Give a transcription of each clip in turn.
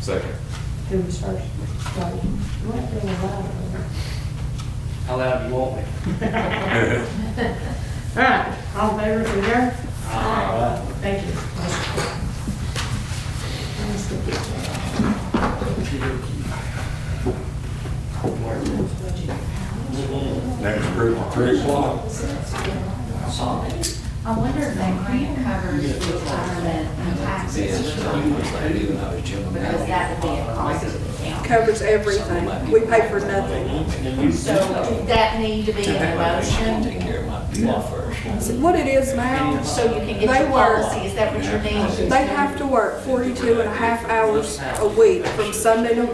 Second. Who was first? Like, you weren't really loud, were How loud do you want me? you? All right, all in favor, say aye. Aye. Thank you. Let's get this one. Next group, three o'clock. I wonder if that grant covers the retirement and taxes, because that would be a cost to the county. covers everything. We pay for nothing. So did that need to be in the motion, So What it is now, so you can get They your were- policy, is that what you're needing? they have to work 42 and a half hours a week from Sunday to,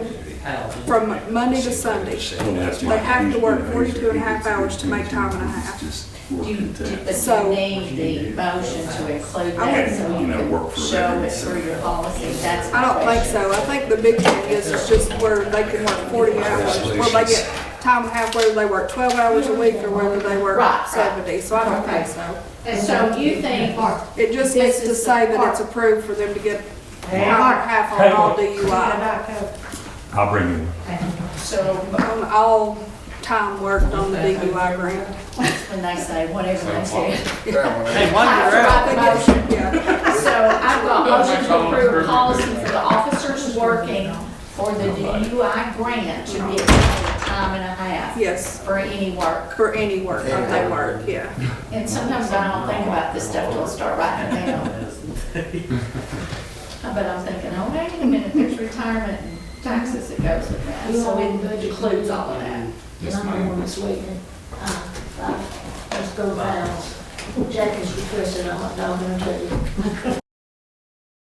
from Monday to Sunday. They have to work 42 and a half hours to make time and a half. Do you, did- but So- you need the motion to include I that, wouldn't- so You you know, work can for show them, it so- through your policy, that's. I don't think so. I think the big thing is, it's just where they can work 40 hours, where they get time and a half, whether they work 12 hours a week or whether they work Right, right. 70. So I don't think so. And so you think, It just This needs to is the say that it's part. approved for them to get hour Hey, and Mark. a half on all What DUI, about Coke? I'll bring you one. so on all time worked on the DUI grant. when they say whatever they say. Hey, one I you're out. forgot the motion. So I've got motion to approve policy for the officers working for the DUI grant to get paid time and a half Yes, for any work. for any work, if they work, yeah. And sometimes I don't think about this stuff till I start writing it down. But I'm thinking, oh, wait a minute, there's retirement and taxes that goes with that. So it includes all of that. Yes, ma'am. Uh, Let's go round. Jack is requesting, I'm not going to tell you.